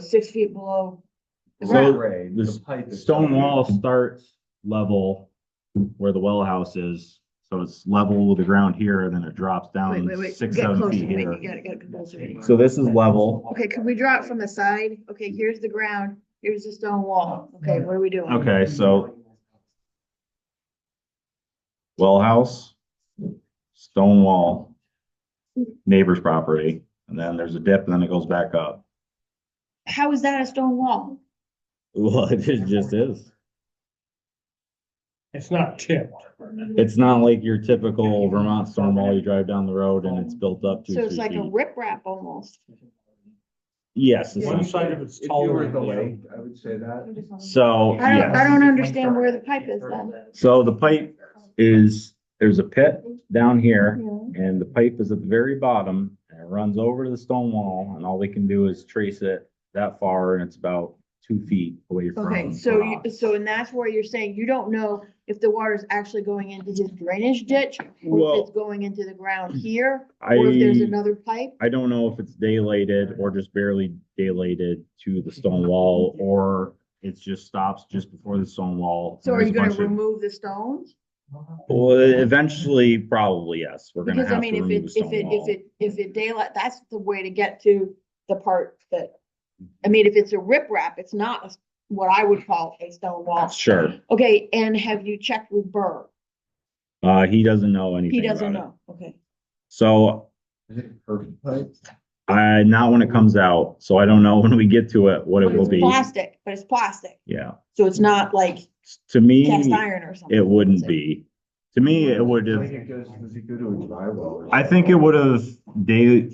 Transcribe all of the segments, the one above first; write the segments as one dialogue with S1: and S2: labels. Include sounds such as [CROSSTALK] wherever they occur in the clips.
S1: six feet below. the
S2: So-
S1: ground.
S2: the
S3: The
S2: s-
S3: pipe is-
S2: Stone wall starts level where the well house is, so it's level with the ground here, and then it drops
S1: Wait,
S2: down
S1: wait, wait, get
S2: six, seven
S1: closer,
S2: feet
S1: Nick,
S2: here.
S1: you gotta get closer. Nick.
S2: So this is level,
S1: Okay, can we draw it from the side? Okay, here's the ground, here's the stone wall. Okay, what are we doing?
S2: Okay, so- well house, stone wall, neighbor's property, and then there's a dip, and then it goes back up.
S1: How is that a stone wall?
S2: [LAUGHS] Well, it is- just is.
S4: It's not tipped.
S2: It's not like your typical Vermont stone wall, you drive down the road and it's built up two,
S1: So
S2: three
S1: it's like a
S2: feet.
S1: riprap almost.
S2: Yes.
S4: One
S2: it's-
S4: side of it's
S3: If you
S4: taller
S3: were
S4: than
S3: the
S4: the other.
S3: lake, I would say that.
S2: So,
S1: I don't,
S2: yeah,
S1: I don't understand where the pipe is then.
S2: so the pipe is, there's a pit down here.
S1: Yeah.
S2: And the pipe is at the very bottom and it runs over to the stone wall and all they can do is trace it that far and it's about two feet away from.
S1: Okay,
S2: the
S1: so
S2: rock.
S1: you, so and that's where you're saying you don't know if the water's actually going into his drainage ditch or if
S2: Well-
S1: it's going into the ground here, or if there's
S2: I,
S1: another pipe.
S2: I don't know if it's daylighted or just barely daylighted to the stone wall or it just stops just before the stone wall.
S1: So are
S2: There's
S1: you
S2: a
S1: gonna
S2: bunch of-
S1: remove the stones?
S2: Well, eventually, probably, yes. We're gonna
S1: Because I
S2: have to
S1: mean, if
S2: remove the
S1: it, if
S2: stone
S1: it, if
S2: wall.
S1: it, if it daylight, that's the way to get to the part that, I mean, if it's a riprap, it's not a s- what I would call a stone wall.
S2: Sure.
S1: Okay, and have you checked with Burr?
S2: Uh, he doesn't know anything
S1: He
S2: about
S1: doesn't
S2: it.
S1: know, okay.
S2: So
S3: Is it curved pipe?
S2: I, not when it comes out, so I don't know [LAUGHS] when we get to it, what it
S1: But
S2: will
S1: it's
S2: be.
S1: Plastic, but it's plastic,
S2: Yeah,
S1: so it's not like
S2: to me,
S1: cast iron or something.
S2: it wouldn't be. To me, it would
S3: I think
S2: have,
S3: it goes, does it go to a dry well?
S2: I think it would have day,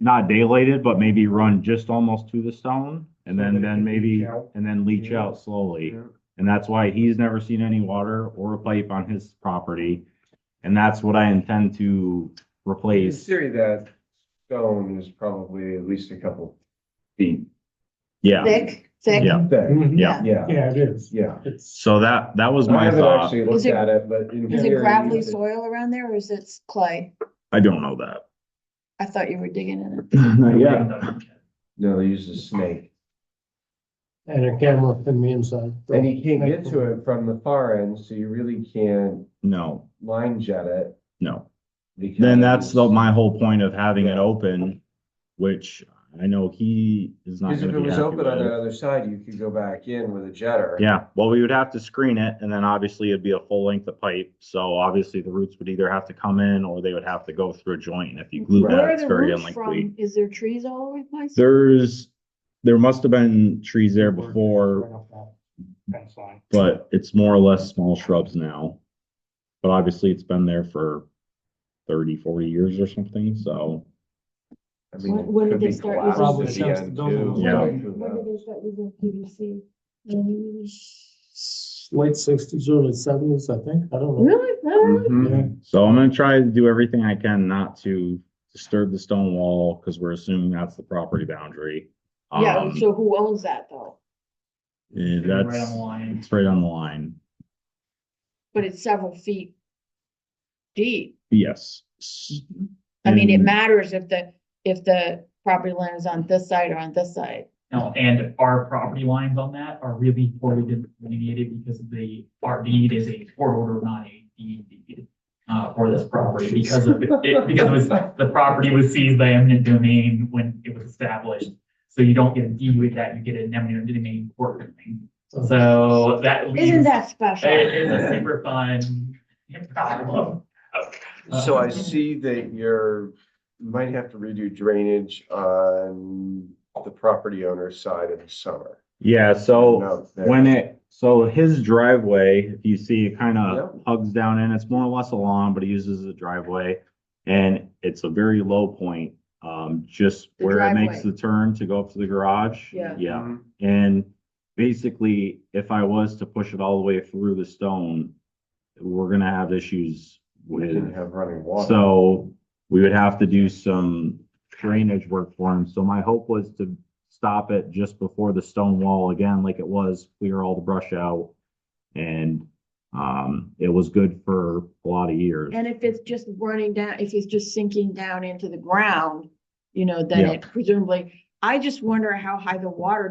S2: not daylighted, but maybe run just almost to the stone. And then, then maybe, and then leach out slowly. And that's why he's never seen any water or a pipe on his property. And that's what I intend to
S3: In
S2: replace.
S3: theory, that stone is probably at least a couple feet
S2: Yeah,
S1: Thick, thick.
S2: Yeah.
S3: thick.
S2: yeah.
S3: Yeah,
S4: Mm-hmm. Yeah, it is.
S3: yeah.
S4: It's,
S2: So that, that was
S3: I
S2: my
S3: haven't
S2: thought.
S3: actually
S1: Is
S3: looked
S1: it-
S3: at it, but in
S1: Is it
S3: theory,
S1: gravelly
S3: it-
S1: soil around there or is it clay?
S2: I don't know [LAUGHS] that.
S1: I thought you were digging in it.
S2: Not yet.
S3: No, they use a snake.
S4: and a camera from the inside.
S3: And you can't get to it from the far end, so you really can't
S2: No,
S3: line jet it.
S2: no.
S3: because-
S2: Then that's the, my whole point of having it open, which I know he is not
S3: Because if
S2: gonna
S3: it
S2: be
S3: was
S2: happy
S3: open on the
S2: with.
S3: other side, you could go back in with a jetter.
S2: Yeah, well, we would have to screen it and then obviously it'd be a full length of pipe. So obviously the roots would either have to come in or they would have to go through a joint. And if you glue
S3: Right.
S2: that,
S1: Where are
S2: it's
S1: the
S2: very
S1: roots
S2: unlikely.
S1: from? Is there trees all over the place?
S2: There's, there must have been trees there before,
S4: Fence line.
S2: but it's more or less small shrubs now. But obviously it's been there for 30, 40 years or something, so.
S3: I mean,
S1: When-
S3: it
S1: when
S3: could
S1: did they
S3: be
S1: start
S3: collapsed
S4: using-
S3: at the
S4: Probably
S3: end, too.
S4: since the-
S2: Yeah.
S1: When did they start using PVC? Mm,
S4: Late sixties, early seventies, I think. I don't know.
S1: Really? Really?
S2: Mm-hmm.
S3: Mhm.
S4: Yeah.
S2: So I'm gonna try to do everything I can not to disturb the stone wall, because we're assuming that's the property boundary.
S1: Yeah,
S2: Um,
S1: so who owns that though?
S2: eh,
S5: Right on
S2: that's,
S5: the line.
S2: it's right on the line.
S1: But it's several feet deep.
S2: Yes. S-
S1: Mm-hmm. I mean, it
S2: and-
S1: matters if the, if the property line is on this side or on this side.
S5: No, and our property lines on that are really poorly delineated because the, our deed is a court order, not a deed deed. Uh, for this property because of it, because it was, the property was seized by eminent domain when it was established. So you don't get a deed with that, you get an eminent domain court domain. So that leaves.
S1: Isn't that
S2: Mm-hmm.
S1: special?
S5: It is a super fun [LAUGHS] problem.
S3: So I see that you're, you might have to redo drainage on the property owner's side in the summer.
S2: Yeah, so
S3: No, there.
S2: Oh, when it, so his driveway, if you see, it kind of
S3: Yep.
S2: hugs down in, it's more or less a lawn, but he uses a driveway. And it's a very low point, um, just
S1: The
S2: where it makes
S1: driveway.
S2: the turn to go up to the garage.
S1: Yeah.
S2: Yeah, And basically, if I was to push it all the way through the stone, we're gonna have issues
S3: We didn't
S2: with,
S3: have running water.
S2: so we would have to do some drainage work for him. So my hope was to stop it just before the stone wall again, like it was, clear all the brush out. And, um, it was good for a lot of years.
S1: And if it's just running down, if it's just sinking down into the ground, you know, then
S2: Yeah.
S1: it presumably, I just wonder how high the water